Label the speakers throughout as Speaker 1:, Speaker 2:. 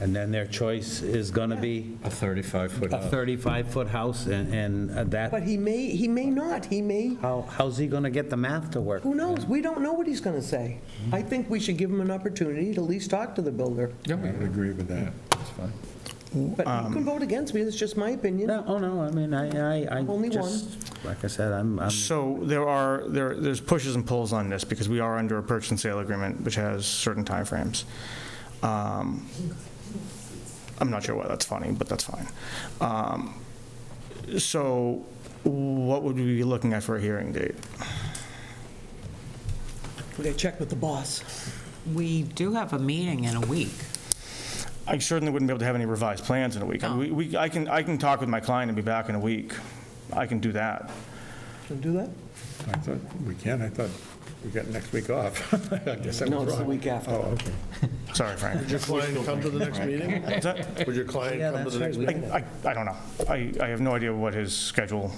Speaker 1: And then their choice is going to be
Speaker 2: A 35-foot
Speaker 1: a 35-foot house, and and
Speaker 3: But
Speaker 1: that,
Speaker 3: he may, he may not, he may,
Speaker 1: how how's he going to get the math to work?
Speaker 3: who knows? We don't know what he's going to say. I think we should give him an opportunity to at least talk to the builder.
Speaker 2: Yeah, we would agree with that.
Speaker 3: But you can vote against me, that's just my opinion.
Speaker 1: No, oh, no, I mean, I, I, I
Speaker 3: Only
Speaker 1: just, like I said, I'm, I'm
Speaker 4: So there are, there, there's pushes and pulls on this because we are under a purchase and sale agreement, which has certain timeframes. Um, I'm not sure why that's funny, but that's fine. Um, So what would we be looking at for a hearing date?
Speaker 3: We gotta check with the boss.
Speaker 5: We do have a meeting in a week.
Speaker 4: I certainly wouldn't be able to have any revised plans in a week. I mean, we- We, I can, I can talk with my client and be back in a week. I can do that.
Speaker 3: Can we do that?
Speaker 6: I thought, we can, I thought we got next week off. I guess I was wrong.
Speaker 3: No, it's the week after.
Speaker 6: Oh, okay.
Speaker 4: Sorry, Frank.
Speaker 7: Would your client come to the next meeting?
Speaker 4: Is that-
Speaker 7: Would your client
Speaker 1: Yeah,
Speaker 7: come to
Speaker 1: that's
Speaker 7: the next?
Speaker 1: right, we
Speaker 4: I, I- I don't know. I, I have no idea what his schedule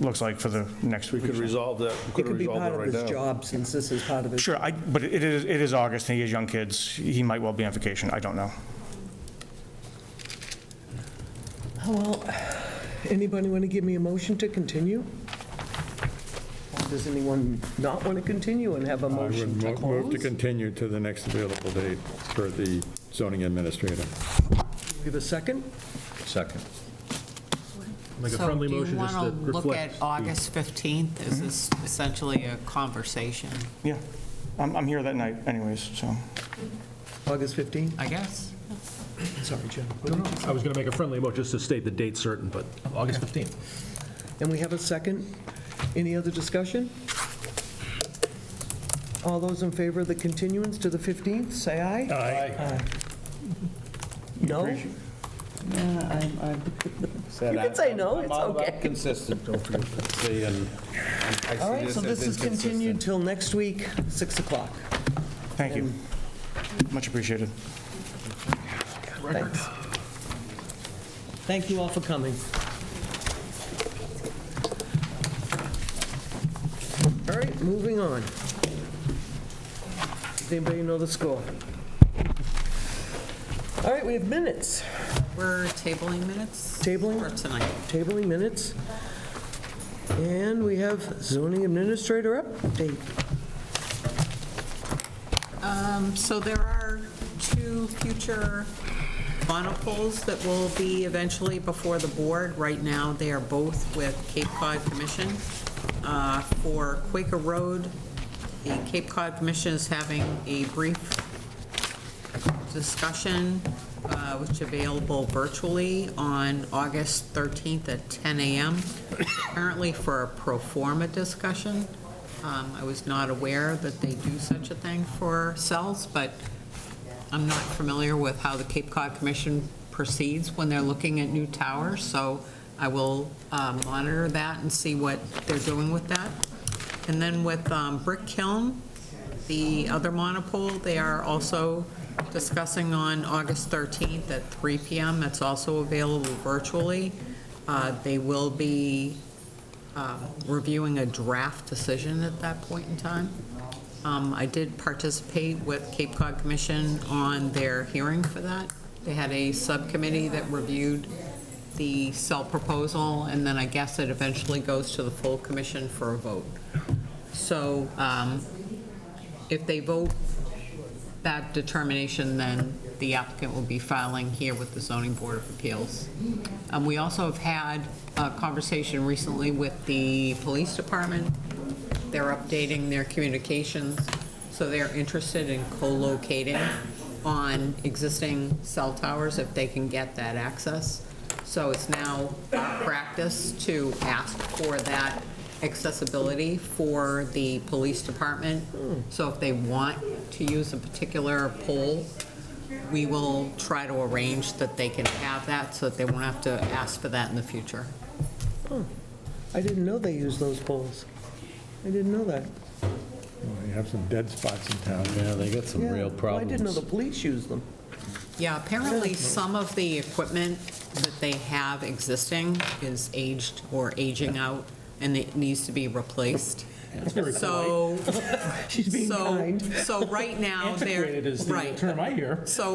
Speaker 4: looks like for the next
Speaker 7: We
Speaker 4: week.
Speaker 7: could resolve that, we
Speaker 3: It
Speaker 7: could
Speaker 3: could be
Speaker 7: resolve
Speaker 3: part
Speaker 7: that
Speaker 3: of
Speaker 7: right now.
Speaker 3: his job, since this is part of his.
Speaker 4: Sure, I, but it is, it is August, and he has young kids. He might well be on vacation, I don't know.
Speaker 3: Well, anybody want to give me a motion to continue? Or Does anyone not want to continue and have a
Speaker 6: I
Speaker 3: motion
Speaker 6: would
Speaker 3: to
Speaker 6: mo- move to
Speaker 3: close?
Speaker 6: continue to the next available date for the zoning administrator.
Speaker 3: Give a second?
Speaker 2: Second.
Speaker 7: Make a friendly motion just
Speaker 5: So
Speaker 7: that
Speaker 5: do you want to look at
Speaker 7: reflects.
Speaker 5: August 15th? Is this essentially a conversation,
Speaker 4: Yeah, I'm, I'm here that night anyways, so.
Speaker 3: August 15th?
Speaker 5: I guess?
Speaker 3: Sorry, Jim.
Speaker 7: I was going to make a friendly motion just to state the date certain, but August 15th.
Speaker 3: And we have a second? Any other discussion? All those in favor of the continuance to the 15th, say aye. Aye. No? You can say no, it's okay.
Speaker 2: Consistent, don't forget.
Speaker 3: All right, so this is continued till next week, 6 o'clock.
Speaker 4: Thank you. Much appreciated.
Speaker 3: Thanks. Thank you all for coming. All right, moving on. Does anybody know the score? All right, we have minutes.
Speaker 5: We're tabling minutes?
Speaker 3: Tabling?
Speaker 5: For tonight.
Speaker 3: tabling minutes. And we have zoning administrator update.
Speaker 5: Um, So there are two future monoples that will be eventually before the board. Right now, they are both with Cape Cod Commission. Uh, For Quaker Road, the Cape Cod Commission is having a brief discussion, uh, which is available virtually on August 13th at 10 a.m., apparently for a pro forma discussion. Um, I was not aware that they do such a thing for cells, but I'm not familiar with how the Cape Cod Commission proceeds when they're looking at new towers, so I will um, monitor that and see what they're doing with that. And then with um, Brick Kiln, the other monopole, they are also discussing on August 13th at 3 PM. It's also available virtually. Uh, They will be um, reviewing a draft decision at that point in time. Um, I did participate with Cape Cod Commission on their hearing for that. They had a subcommittee that reviewed the cell proposal, and then I guess it eventually goes to the full commission for a vote. So um, if they vote that determination, then the applicant will be filing here with the zoning board of appeals. Um, We also have had a conversation recently with the police department. They're updating their communications, so they're interested in co-locating on existing cell towers if they can get that access. So it's now our practice to ask for that accessibility for the police department. So if they want to use a particular pole, we will try to arrange that they can have that so that they won't have to ask for that in the future.
Speaker 3: I didn't know they used those polls. I didn't know that.
Speaker 6: We have some dead spots in town.
Speaker 2: Yeah, they got some real
Speaker 3: Yeah, well, I didn't know the
Speaker 2: problems.
Speaker 3: police used them.
Speaker 5: Yeah, apparently some of the equipment that they have existing is aged or aging out and it needs to be replaced. So,
Speaker 3: She's being
Speaker 5: so,
Speaker 3: kind.
Speaker 5: so right now, they're. Antiquated is the term I hear. So